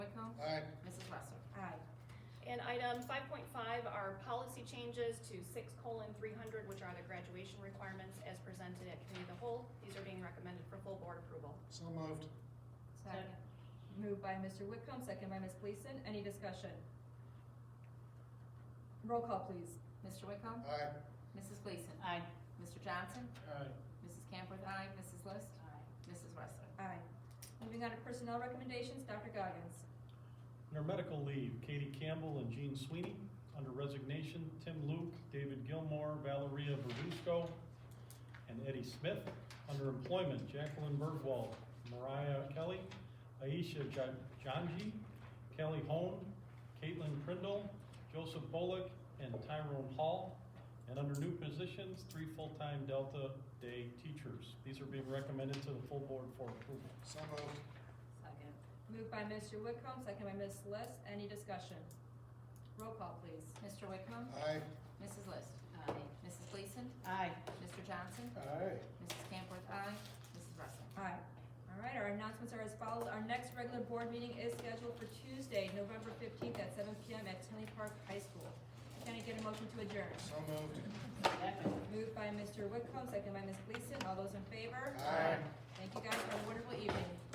And item five point five are policy changes to six colon three hundred, which are the graduation requirements as presented at committee of the whole. These are being recommended for full board approval. So moved. Second. Moved by Mr. Whitcomb, second by Ms. Gleason. Any discussion? Roll call, please. Mr. Wickham? Aye. Mrs. Gleason? Aye. Mr. Johnson? Aye. Mrs. Camworth? Aye. Mrs. List? Aye. Mrs. Wrestler? Aye. Moving on to personnel recommendations, Dr. Goggins. Under medical leave, Katie Campbell and Jean Sweeney. Under resignation, Tim Luke, David Gilmore, Valeria Verduzco, and Eddie Smith. Under employment, Jacqueline Bergwald, Mariah Kelly, Aisha Ja- Janji, Kelly Hone, Caitlin Prindle, Joseph Bullock, and Tyrone Hall. And under new positions, three full-time Delta Day teachers. These are being recommended to the full board for approval. So moved. Second. Moved by Mr. Whitcomb, second by Ms. List. Any discussion? Roll call, please. Mr. Wickham? Aye. Mrs. List? Aye. Mrs. Gleason? Aye. Mr. Johnson? Aye. Mrs. Camworth? Aye. Mrs. Wrestler? Aye. All right, our announcements are as follows. Our next regular board meeting is scheduled for Tuesday, November fifteenth at seven PM at Tinley Park High School. Can I get a motion to adjourn? So moved. Moved by Mr. Whitcomb, second by Ms. Gleason. All those in favor? Aye. Thank you guys for a wonderful evening.